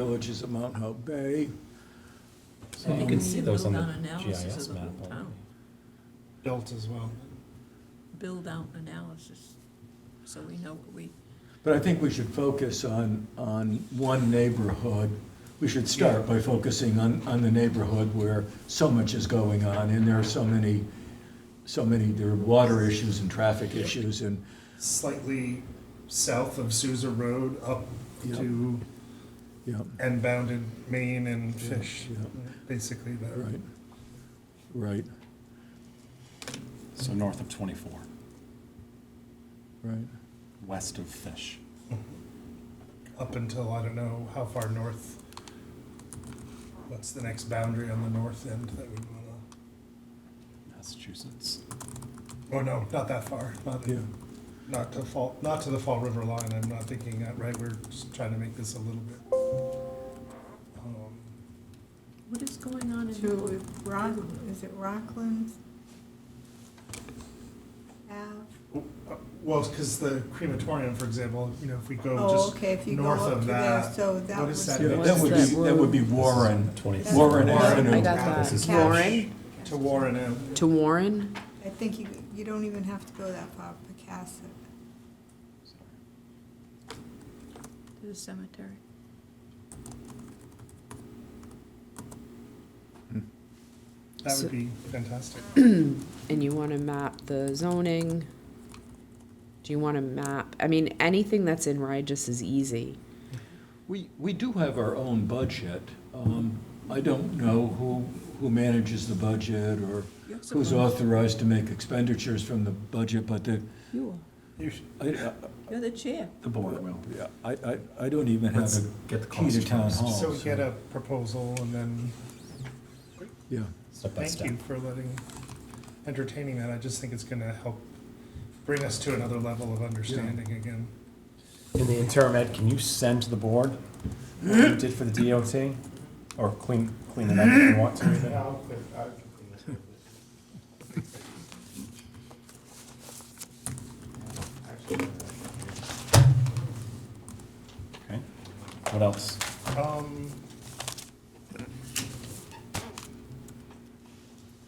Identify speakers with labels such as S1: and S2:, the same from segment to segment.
S1: villages of Mount Hope Bay.
S2: And you
S1: Um,
S2: can see those on the
S3: Build out analysis
S2: GIS
S3: of the
S2: map.
S3: whole
S2: already.
S3: town.
S4: built as well.
S3: build out analysis, so we know what we,
S1: But I think we should focus on, on one neighborhood. We should start by focusing on, on the neighborhood where so much is going on and there are so many, so many, there are water issues and traffic issues and,
S4: Slightly south of Sousa Road, up
S1: Yeah.
S4: to
S1: yeah,
S4: and bounded Maine and Fish,
S1: yeah.
S4: basically that.
S1: right, right,
S5: So north of 24,
S1: right.
S5: west of Fish.
S4: Up until, I don't know, how far north, what's the next boundary on the north end that we wanna,
S5: Massachusetts.
S4: oh no, not that far, not,
S1: Yeah,
S4: not to Fall, not to the Fall River line, I'm not thinking that right, we're just trying to make this a little bit. um,
S3: what is going on in,
S6: to Rock, is it Rockland? Ave?
S4: uh, Well, because the crematorium, for example, you know, if we go
S6: Oh,
S4: just
S6: okay, if you go
S4: north
S6: up
S4: of
S6: to there,
S4: that,
S6: so that
S4: what
S6: was.
S4: is that?
S1: Yeah, that would be, that would be Warren,
S5: 24.
S1: Warren
S4: Warren.
S1: Avenue.
S7: I got that.
S5: This is-
S7: Warren,
S4: to Warren Avenue.
S7: to Warren,
S6: I think you, you don't even have to go that far, Pecasset.
S3: to the cemetery?
S4: That
S7: So-
S4: would be fantastic.
S7: and you want to map the zoning. Do you want to map, I mean, anything that's in Rigis is easy.
S1: We, we do have our own budget. Um, I don't know who, who manages the budget or
S3: You're supposed-
S1: who's authorized to make expenditures from the budget, but the,
S3: You
S4: You should-
S1: I, I-
S3: are, you're the chair.
S5: The board will.
S1: yeah, I, I, I don't even have
S5: Let's
S1: a
S5: get the
S1: key to
S5: cost
S1: town
S5: first.
S1: hall.
S4: So we get a proposal and then,
S1: Yeah,
S5: Step by
S4: thank
S5: step.
S4: you for letting, entertaining that. I just think it's gonna help bring us to another level of understanding again.
S8: In the interim, Ed, can you send to the board what you did for the DOT? Or clean, clean it up if you want to. even?
S5: Okay. What else?
S4: Um,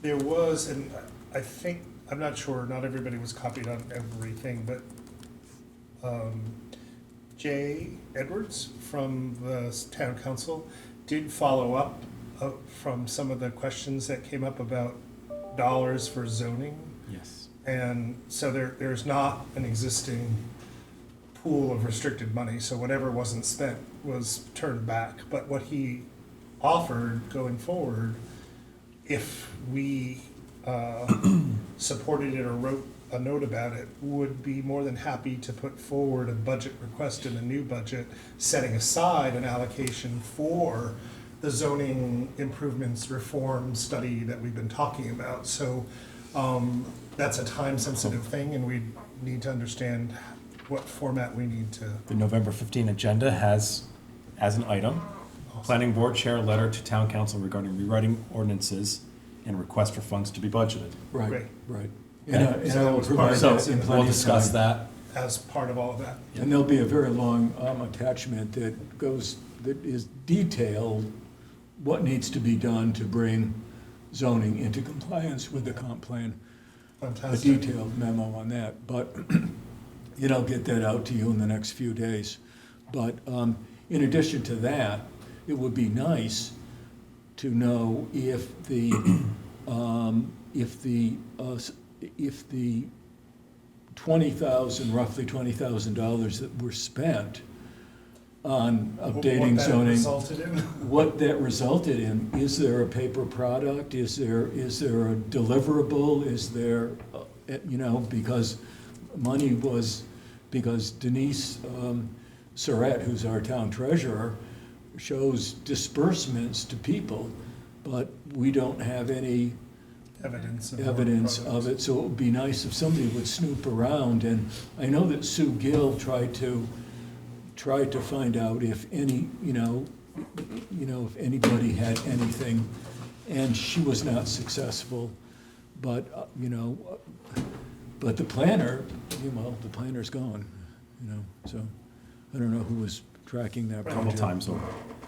S4: There was, and I think, I'm not sure, not everybody was copied on everything, but um, Jay Edwards from the s- town council did follow up uh, from some of the questions that came up about dollars for zoning.
S5: Yes.
S4: And so there, there's not an existing pool of restricted money, so whatever wasn't spent was turned back. But what he offered going forward, if we uh, supported it or wrote a note about it, would be more than happy to put forward a budget request in a new budget, setting aside an allocation for the zoning improvements reform study that we've been talking about. So um, that's a time-sensitive thing, and we need to understand what format we need to.
S8: The November 15 agenda has, as an item, planning board chair letter to town council regarding rewriting ordinances and request for funds to be budgeted.
S1: right,
S4: Great.
S1: right. And I,
S4: Okay.
S1: and I will provide
S8: So
S1: that in plenty
S8: we'll
S1: of
S8: discuss
S1: time.
S8: that.
S4: as part of all of that.
S1: And there'll be a very long, um, attachment that goes, that is detailed, what needs to be done to bring zoning into compliance with the comp plan. a
S4: Fantastic.
S1: detailed memo on that, but, you know, get that out to you in the next few days. But um, in addition to that, it would be nice to know if the, um, if the, uh, s- if the twenty thousand, roughly twenty thousand dollars that were spent on updating
S4: What that
S1: zoning
S4: resulted in.
S1: what that resulted in. Is there a paper product? Is there, is there a deliverable? Is there, uh, you know, because money was, because Denise um, Surratt, who's our town treasurer, shows disbursements to people, but we don't have any
S4: Evidence. of
S1: evidence of
S4: progress.
S1: it, so it would be nice if somebody would snoop around, and I know that Sue Gill tried to, tried to find out if any, you know, you know, if anybody had anything, and she was not successful, but, uh, you know, uh, but the planner, you know, the planner's gone, you know, so, I don't know who was tracking that
S8: Couple
S1: project.
S8: times over.